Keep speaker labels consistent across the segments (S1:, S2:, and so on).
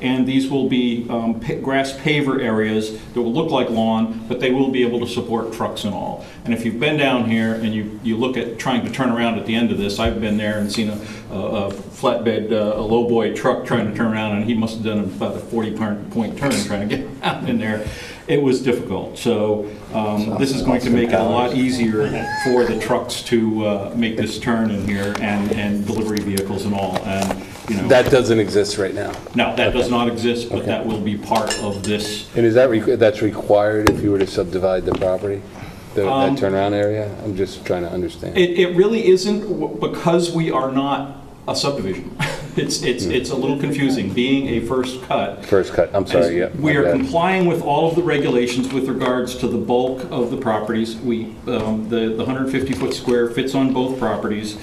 S1: And these will be um, pa- grass paver areas that will look like lawn, but they will be able to support trucks and all. And if you've been down here and you, you look at trying to turn around at the end of this, I've been there and seen a, a a flatbed, uh, a lowboy truck trying to turn around, and he must have done about a 40-point turn trying to get out in there. It was difficult. So um, this is going to make it a lot easier for the trucks to uh, make this turn in here and, and delivery vehicles and all, and, you know.
S2: That doesn't exist right now.
S1: No, that does not exist, but
S2: Okay.
S1: that will be part of this.
S2: And is that, requ- that's required if you were to subdivide the property, the- that turnaround area? I'm just trying to understand.
S1: It, it really isn't w- because we are not a subdivision. It's, it's,
S2: Hmm.
S1: it's a little confusing, being a first cut.
S2: First cut, I'm sorry, yeah.
S1: As We
S2: my
S1: are
S2: bad.
S1: complying with all of the regulations with regards to the bulk of the properties. We, um, the 150-foot square fits on both properties.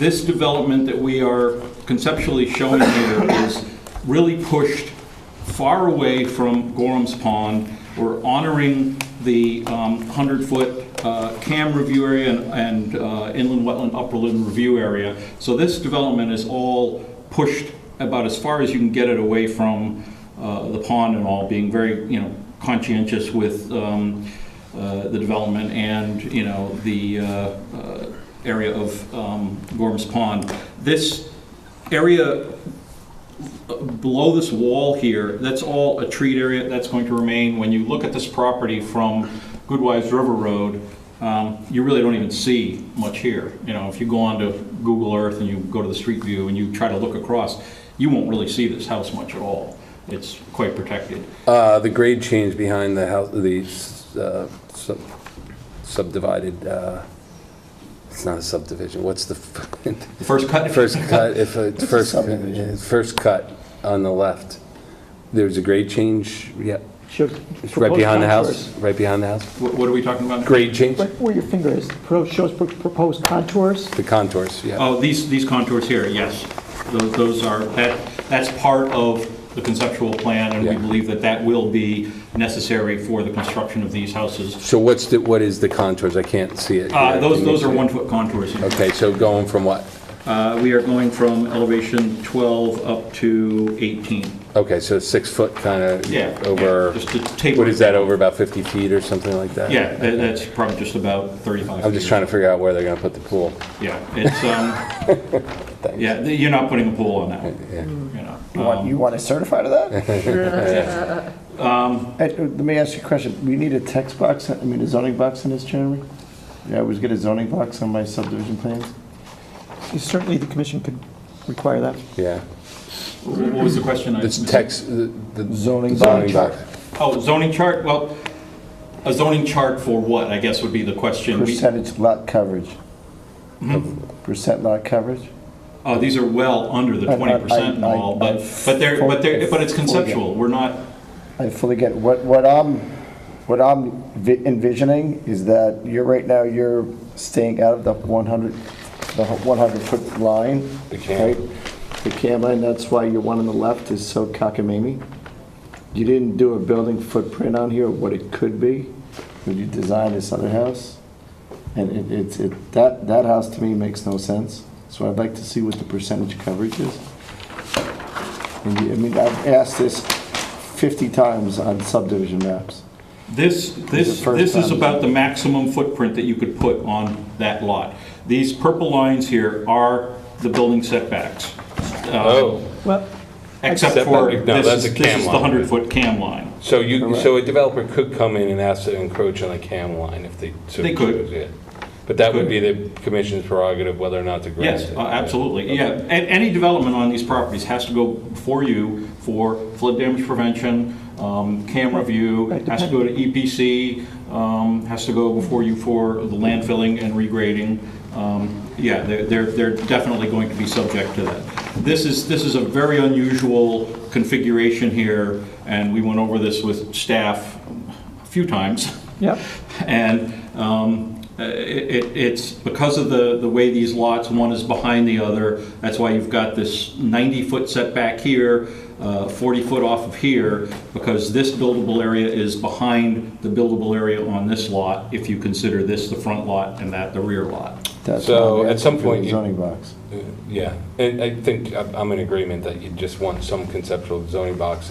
S1: This development that we are conceptually showing here is really pushed far away from Gorham's Pond. We're honoring the um, 100-foot uh, cam review area and- and uh, inland wetland upperland review area. So this development is all pushed about as far as you can get it away from uh, the pond and all, being very, you know, conscientious with um, uh, the development and, you know, the uh, uh, area of um, Gorms Pond. This area below this wall here, that's all a treat area that's going to remain. When you look at this property from Goodwives River Road, um, you really don't even see much here. You know, if you go onto Google Earth and you go to the street view and you try to look across, you won't really see this house much at all. It's quite protected.
S2: Uh, The grade change behind the house, the uh, sub- subdivided, uh, it's not a subdivision, what's the, f-
S1: The first cut,
S2: first cut, if, it's first, uh, first cut on the left, there's a grade change, yeah, it's right behind the house, right behind the house?
S1: what what are we talking about?
S2: Grade change,
S3: Right where your finger is, pro- shows pro- proposed contours.
S2: the contours, yeah.
S1: Oh, these, these contours here, yes. Those those are, that, that's part of the conceptual plan, and we
S2: Yeah.
S1: believe that that will be necessary for the construction of these houses.
S2: So what's the, what is the contours? I can't see it.
S1: Uh, Those,
S2: Can you
S1: those are
S2: see it?
S1: one-foot contours. here.
S2: Okay, so going from what?
S1: Uh, We are going from elevation 12 up to 18.
S2: Okay, so six foot kind
S1: Yeah.
S2: of over,
S1: yeah, Just to taper.
S2: what is that, over about 50 feet or something like that?
S1: Yeah, tha- that's probably just about 35.
S2: I'm just trying to figure out where they're going to put the pool.
S1: Yeah, it's, um, yeah, th- you're not putting a pool on that one,
S2: Yeah.
S1: you know. Uh,
S3: You want, you want to certify to that?
S1: Um,
S3: Uh, Let me ask you a question. We need a text box, I mean, a zoning box in this, Jeremy? Yeah, I always get a zoning box on my subdivision plans. Certainly, the commission could require that.
S2: Yeah.
S1: wh- What was the question? I
S2: It's
S1: missed?
S2: text, the the
S3: Zoning
S2: zoning
S3: chart.
S2: box.
S1: Oh, zoning chart, well, a zoning chart for what, I guess would be the question. We-
S3: Percentage lot coverage. Percent lot coverage?
S1: Oh, these are well under the
S3: I- I-
S1: 20% and
S3: I-
S1: all,
S3: I-
S1: but, but they're, but they're, but it's
S3: Forget.
S1: conceptual, we're not,
S3: I fully get, it. what, what I'm, what I'm vi- envisioning is that you're, right now, you're staying out of the 100, the 100-foot line.
S2: The cam.
S3: right? The cam line, that's why your one on the left is so cockamamie. You didn't do a building footprint on here, what it could be, when you designed this other house. And it, it's, it, that, that house to me makes no sense, so I'd like to see what the percentage coverage is. And you- I mean, I've asked this 50 times on subdivision maps.
S1: this, this,
S3: first
S1: this is
S3: time.
S1: about the maximum footprint that you could put on that lot. These purple lines here are the building setbacks. uh,
S2: Oh,
S4: Well,
S1: Except
S2: Setback,
S1: for,
S2: no,
S1: this is,
S2: that's a
S1: this
S2: cam
S1: is the
S2: line.
S1: 100-foot cam line.
S2: so you, so a developer could come in and ask to encroach on a cam line if they so
S1: They could.
S2: choose, yeah. But that would be the commission's prerogative whether or not to grant
S1: Yes,
S2: it.
S1: uh, absolutely, yeah. A- Any development on these properties has to go before you for flood damage prevention, um, cam review, has to go to EPC, um, has to go before you for the landfilling and regrading. Um, Yeah, they're- they're, they're definitely going to be subject to that. This is, this is a very unusual configuration here, and we went over this with staff a few times.
S4: yeah,
S1: And um, i- i- it- it's because of the, the way these lots, one is behind the other, that's why you've got this 90-foot setback here, 40-foot off of here, because this buildable area is behind the buildable area on this lot, if you consider this the front lot and that the rear lot.
S3: That's
S2: So,
S3: why we
S2: at
S3: asked
S2: some
S3: for the
S2: point, you-
S3: Zoning box.
S2: Uh, Yeah, and I think I'm I'm in agreement that you just want some conceptual zoning box